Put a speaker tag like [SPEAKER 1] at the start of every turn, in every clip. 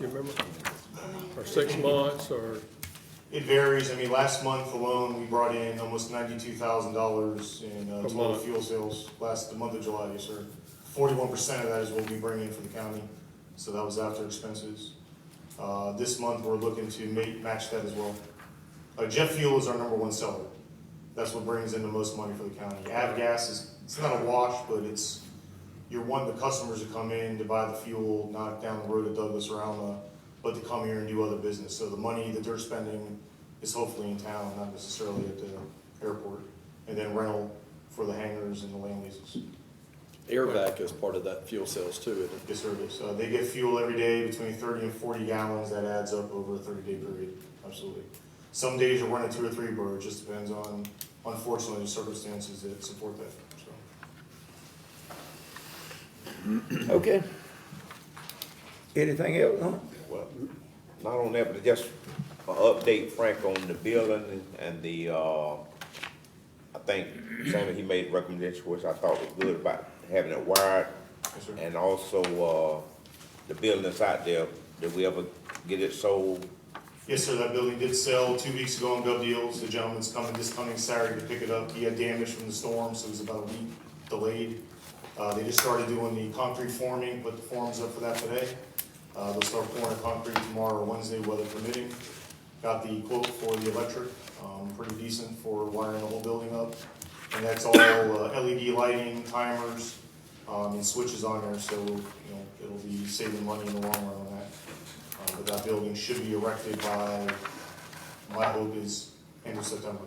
[SPEAKER 1] you remember? Or six months, or,
[SPEAKER 2] It varies. I mean, last month alone, we brought in almost ninety-two thousand dollars in uh,
[SPEAKER 1] A
[SPEAKER 2] total
[SPEAKER 1] month.
[SPEAKER 2] fuel sales last, the month of July, yes, sir. Forty-one percent of that is what we bring in for the county, so that was after expenses. Uh, this month, we're looking to ma- match that as well. Uh, jet fuel is our number one seller. That's what brings in the most money for the county. Avgas is, it's not a wash, but it's, you're wanting the customers to come in to buy the fuel, not down the road to Douglas or Alma, but to come here and do other business. So the money that they're spending is hopefully in town, not necessarily at the airport. And then rental for the hangars and the land leases.
[SPEAKER 3] Airvac is part of that fuel sales too, isn't it?
[SPEAKER 2] Yes, sir, it is. So they get fuel every day between thirty and forty gallons. That adds up over a thirty-day period, absolutely. Some days you're running two or three, but it just depends on, unfortunately, the circumstances that support that, so.
[SPEAKER 4] Okay. Anything else, huh?
[SPEAKER 5] Well, not on that, but just a update Frank on the building and the, uh, I think Sammy, he made recommendation, which I thought was good about having it wired.
[SPEAKER 2] Yes, sir.
[SPEAKER 5] And also, uh, the building that's out there, did we ever get it sold?
[SPEAKER 2] Yes, sir, that building did sell two weeks ago on Gov Deals. The gentleman's coming this coming Saturday to pick it up. He had damage from the storm, so it was about a week delayed. Uh, they just started doing the concrete forming, put the forms up for that today. Uh, they'll start pouring the concrete tomorrow or Wednesday, weather permitting. Got the quote for the electric, um, pretty decent for wiring the whole building up. And that's all uh, LED lighting, timers, um, and switches on there, so, you know, it'll be saving money in the long run on that. Uh, But that building should be erected by, my hope is end of September.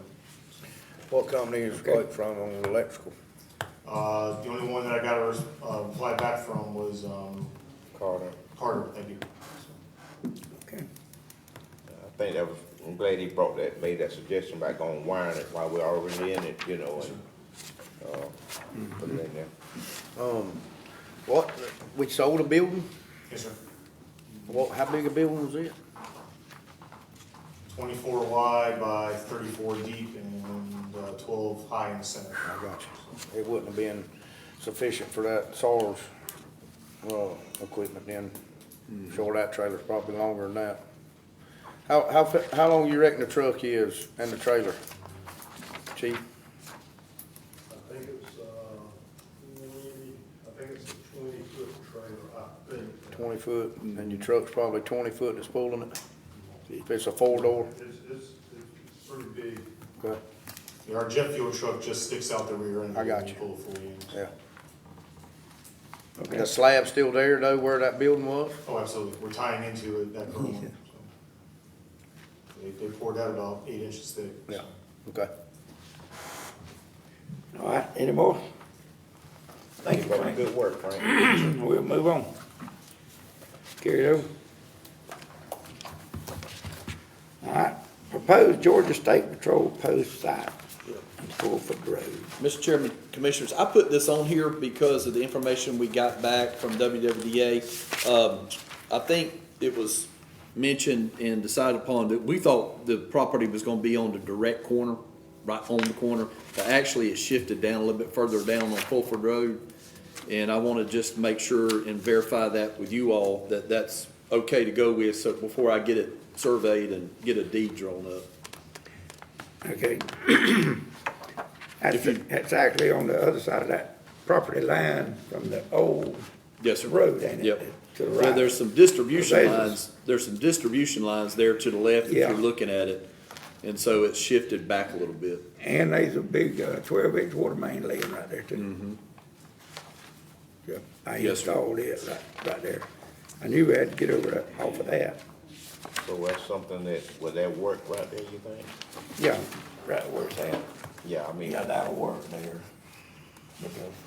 [SPEAKER 4] What company is Blake from on the electrical?
[SPEAKER 2] Uh, The only one that I got a res- uh, reply back from was um,
[SPEAKER 5] Carter,
[SPEAKER 2] Carter, thank you.
[SPEAKER 4] Okay.
[SPEAKER 5] I think that was, I'm glad he brought that, made that suggestion about going wiring it while we're already in it, you know, and, uh, put it in there.
[SPEAKER 6] Um, What, we sold a building?
[SPEAKER 2] Yes, sir.
[SPEAKER 6] What, how big a building was it?
[SPEAKER 2] Twenty-four wide by thirty-four deep and uh, twelve high in the center.
[SPEAKER 6] I got you. It wouldn't have been sufficient for that SARS, uh, equipment then. Sure, that trailer's probably longer than that. How, how, fa- how long you reckon the truck is and the trailer? Chief,
[SPEAKER 7] I think it's, uh, twenty, I think it's a twenty foot trailer, I think.
[SPEAKER 6] twenty foot, and your truck's probably twenty foot that's pulling it? If it's a four door,
[SPEAKER 7] It's, it's, it's pretty big.
[SPEAKER 6] okay,
[SPEAKER 2] Yeah, Our jet fuel truck just sticks out the rear end.
[SPEAKER 6] I got
[SPEAKER 2] and
[SPEAKER 6] you.
[SPEAKER 2] Pull it fully in.
[SPEAKER 6] yeah. The slab's still there though, where that building was?
[SPEAKER 2] Oh, absolutely. We're tying into it, that current one. so. They they poured out about eight inches thick. so.
[SPEAKER 6] Yeah. Okay.
[SPEAKER 4] All right, any more? Thank you,
[SPEAKER 5] But
[SPEAKER 4] Frank.
[SPEAKER 5] good work, Frank.
[SPEAKER 4] We'll move on. Carry it over. All right, proposed Georgia State Patrol post site on Fulford Road.
[SPEAKER 3] Mr. Chairman, Commissioners, I put this on here because of the information we got back from WWDA. Um, I think it was mentioned and decided upon that we thought the property was gonna be on the direct corner, right on the corner. But actually, it shifted down a little bit further down on Fulford Road. And I wanna just make sure and verify that with you all, that that's okay to go with, so before I get it surveyed and get a deed drawn up.
[SPEAKER 4] Okay. That's, that's actually on the other side of that property line from the old
[SPEAKER 3] Yes, sir.
[SPEAKER 4] road, ain't it?
[SPEAKER 3] Yep.
[SPEAKER 4] To the
[SPEAKER 3] Well,
[SPEAKER 4] right.
[SPEAKER 3] there's some distribution
[SPEAKER 4] There's-
[SPEAKER 3] lines, there's some distribution lines there to the left if
[SPEAKER 4] Yeah.
[SPEAKER 3] you're looking at it. And so it's shifted back a little bit.
[SPEAKER 4] And there's a big uh, twelve inch water main laying right there too. Yeah, I
[SPEAKER 3] Mm-hmm. Yes, sir.
[SPEAKER 4] installed it right, right there. I knew we had to get over that, off of that.
[SPEAKER 5] So that's something that, would that work right there, you think?
[SPEAKER 4] Yeah, right where it's at.
[SPEAKER 5] Sam? Yeah, I mean,
[SPEAKER 4] Yeah, that'll work there. Because-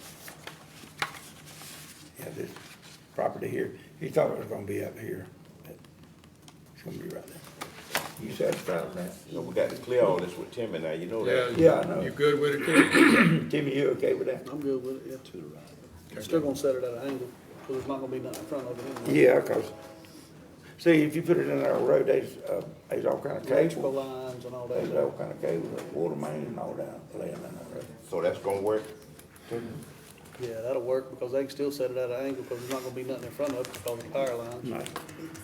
[SPEAKER 4] Yeah, this property here, he thought it was gonna be up here. but It's gonna be right there. You satisfied with that?
[SPEAKER 5] you know, we got to clear all this with Timmy now, you know that.
[SPEAKER 4] Yeah, I know.
[SPEAKER 1] yeah, you good with it, Keith?
[SPEAKER 4] Timmy, you okay with that?
[SPEAKER 8] I'm good with it, yeah. To the right. Still gonna set it at an angle, because there's not gonna be nothing in front of it anyway.
[SPEAKER 4] Yeah, 'cause, see, if you put it in our road, there's, uh, there's all kind of
[SPEAKER 8] Electrical
[SPEAKER 4] cable.
[SPEAKER 8] lines and all
[SPEAKER 4] There's
[SPEAKER 8] that.
[SPEAKER 4] all kind of cable, like water main and all that, laying in that road.
[SPEAKER 5] So that's gonna work?
[SPEAKER 8] Yeah, that'll work, because they can still set it at an angle, because there's not gonna be nothing in front of it because of the power lines.
[SPEAKER 4] No.